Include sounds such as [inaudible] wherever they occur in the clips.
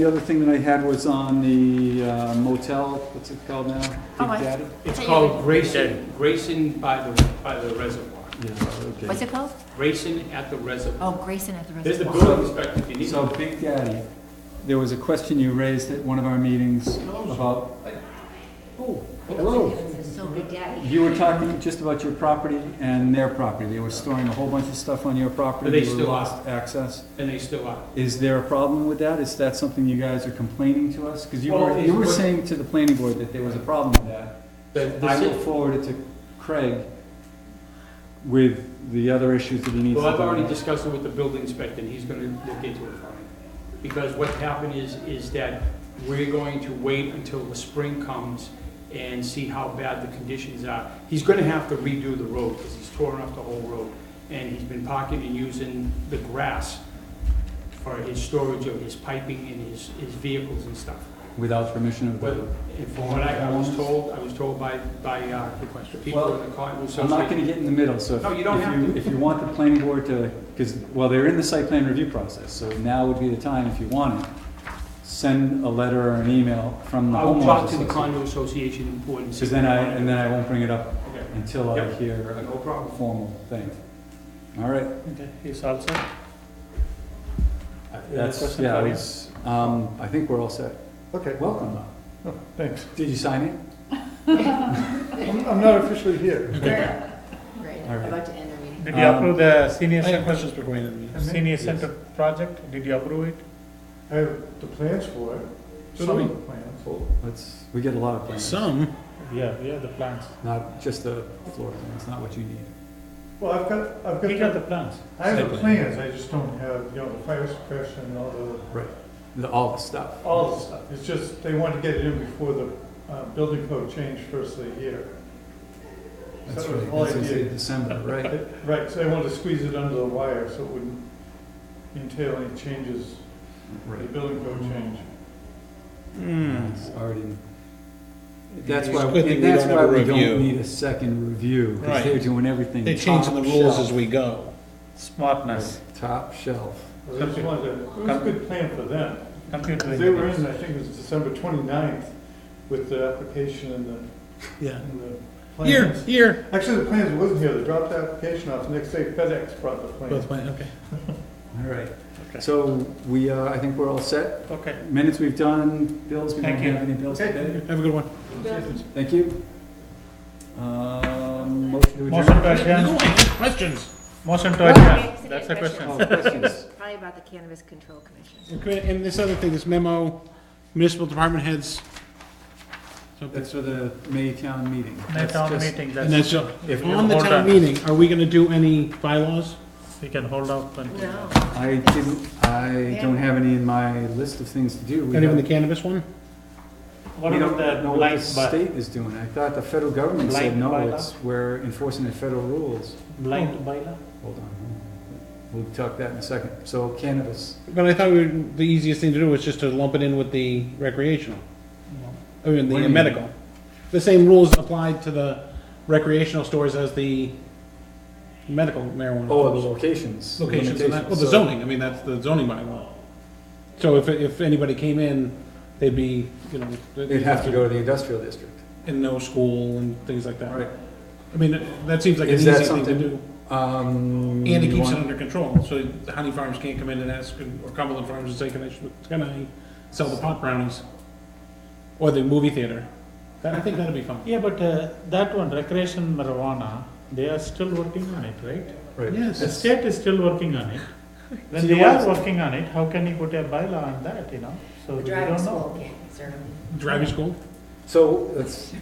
The other thing that I had was on the uh, motel, what's it called now? Oh, I- Big Daddy? It's So you called would- Grayson, Grayson by the, by the reservoir. Yeah, What's okay. it called? Grayson at the reservoir. Oh, Grayson at the There's the reservoir. building inspector, if you need So to. Big Daddy, there was a question you raised at one of our meetings about, Oh, Oh, It says So Big Daddy. you were talking just about your property and their property. They were storing a whole bunch of stuff on your property. But they You still are. lost access. And they still are. Is there a problem with that? Is that something you guys are complaining to us? Because you Well, were, it's you were what- saying to the planning board that there was a problem with that. The- the I will ci- forward it to Craig with the other issues that he needs to. Well, I've deal already with. discussed it with the building inspector, and he's gonna look into it for me. Because what happened is, is that we're going to wait until the spring comes and see how bad the conditions are. He's gonna have to redo the road, because he's torn up the whole road, and he's been parking and using the grass for his storage of his piping and his, his vehicles and stuff. Without permission of But the. from what I I was told, I was told by, by uh, the people in the condo I'm not gonna association. get in the middle, so if No, you don't if have you, if you want the planning board to, because, well, they're in the site plan review process, so now would be the time, if you want it, send a letter or an email from the I will homeowners talk to the association. condo association board and see. Because then I, and then I won't bring it up Okay. until I Yep. hear No a problem. formal thing. All right, Okay, he's all set? Any that's, question, yeah, I Claudia? was- um, I think we're all set. Okay, Welcome. oh, thanks. Did you sign it? I'm I'm not officially here. Great, All right. about to end our meeting. Did you Um, approve the senior I have center, questions for Wayne. senior Yes. center project? Did you approve it? I have the plans for it, So some do of we. the plans. Let's, we get a lot of plans. Yeah, we have the plans. Not just the floor plan, it's not what you need. Well, I've got, I've We got got, the the- plans. I have the Site plan. plans, I just don't have, you know, the fire suppression and all the, The, all the stuff. all the stuff. It's just, they want to get it in before the uh, building code change first of the year. So That's that was right, the whole that's in idea. December, [laughs] right? Right, so they wanted to squeeze it under the wire so it wouldn't entail any changes, the Right. building code change. Hmm. It's already. That's It's why, a good thing and we that's don't why have a we review. don't need a second review, because Right. they're doing everything. They're changing the top rules shelf. as we go. Smartness. Top shelf. I just wanted to- It was a good plan for them. Computer They were engineers. in, I think it was December 29th with the application and the, Yeah. and the Here, plans. here. Actually, the plans wasn't here, they dropped the application off, next day FedEx brought the plans. Both went, okay. All right. Okay. So we, uh, I think we're all set. Okay. Minutes we've done, bills, we don't Thank you. have any bills Okay. today. Have a good one. Thank you. Um, motion to Motion adjourn. to No, adjourn, I have questions. motion to Well, adjourn. okay, That's the question. question. Oh, questions? Probably about the Cannabis Control Commission. Okay, And this other thing, this memo, municipal department heads. something. That's for the May town meeting. May That's town just- meeting, And that's, that's, uh, If on the Hold town on. meeting, are we gonna do any bylaws? we can hold off until. No. I didn't, I don't have any in my list of things to do. We Not even the have- cannabis one? What we about don't the know what the blind bu- state is doing. I thought the federal government said, Blind no, bylaw? it's, we're enforcing the federal rules. blind Oh. bylaw? Hold on, we'll talk that in a second. So cannabis, But I thought we would- the easiest thing to do was just to lump it in with the recreational, I mean, What do the you mean? medical. The same rules applied to the recreational stores as the medical marijuana. oh, stores. the locations. locations and that, well, the limitations. zoning, I mean, that's the zoning bylaw. So if, if anybody came in, they'd be, you know. So They'd have to go to the industrial district. And no school and things like that. Right. I mean, that seems like an Is easy that thing to something- do. Um. And it you keeps it want- under control, so Honey Farms can't come in and ask, or Cumberland Farms and say, can I, can I sell the pot brownies? Or the movie theater. That, I think that'd be fun. Yeah, but uh, that one, recreation marijuana, they are still working on it, right? Right. Yes. The That's- state is still working [laughs] on it. So When you they are want- working on it, how can you put a bylaw on that, you know? So The we driving don't know. school can't serve them. Driving school? So let's,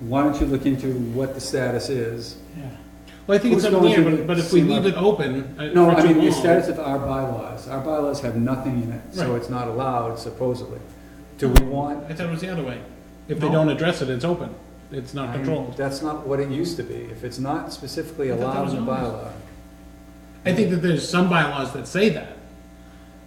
why don't you look into what the status is? Yeah. Well, I think it's Who's up going there, to but- but if we see leave what- it open. uh, No, for I too mean, the long- status of our bylaws, our bylaws have nothing in it, so Right. it's not allowed supposedly. Do we want? I thought it was the other way. If they No. don't address it, it's open. It's not I- controlled. That's not what it used to be, if it's not specifically I thought that allowed was in the bylaw. I think that there's some bylaws that say that.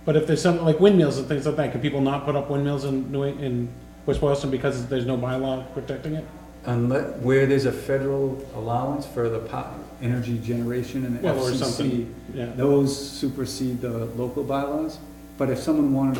But if there's something like windmills and things like that, can people not put up windmills in New, in West Boylston because there's no bylaw protecting it? Unless, where there's a federal allowance for the po energy generation and the Well, or FCC, something, yeah. those supersede the local bylaws? But if someone wanted to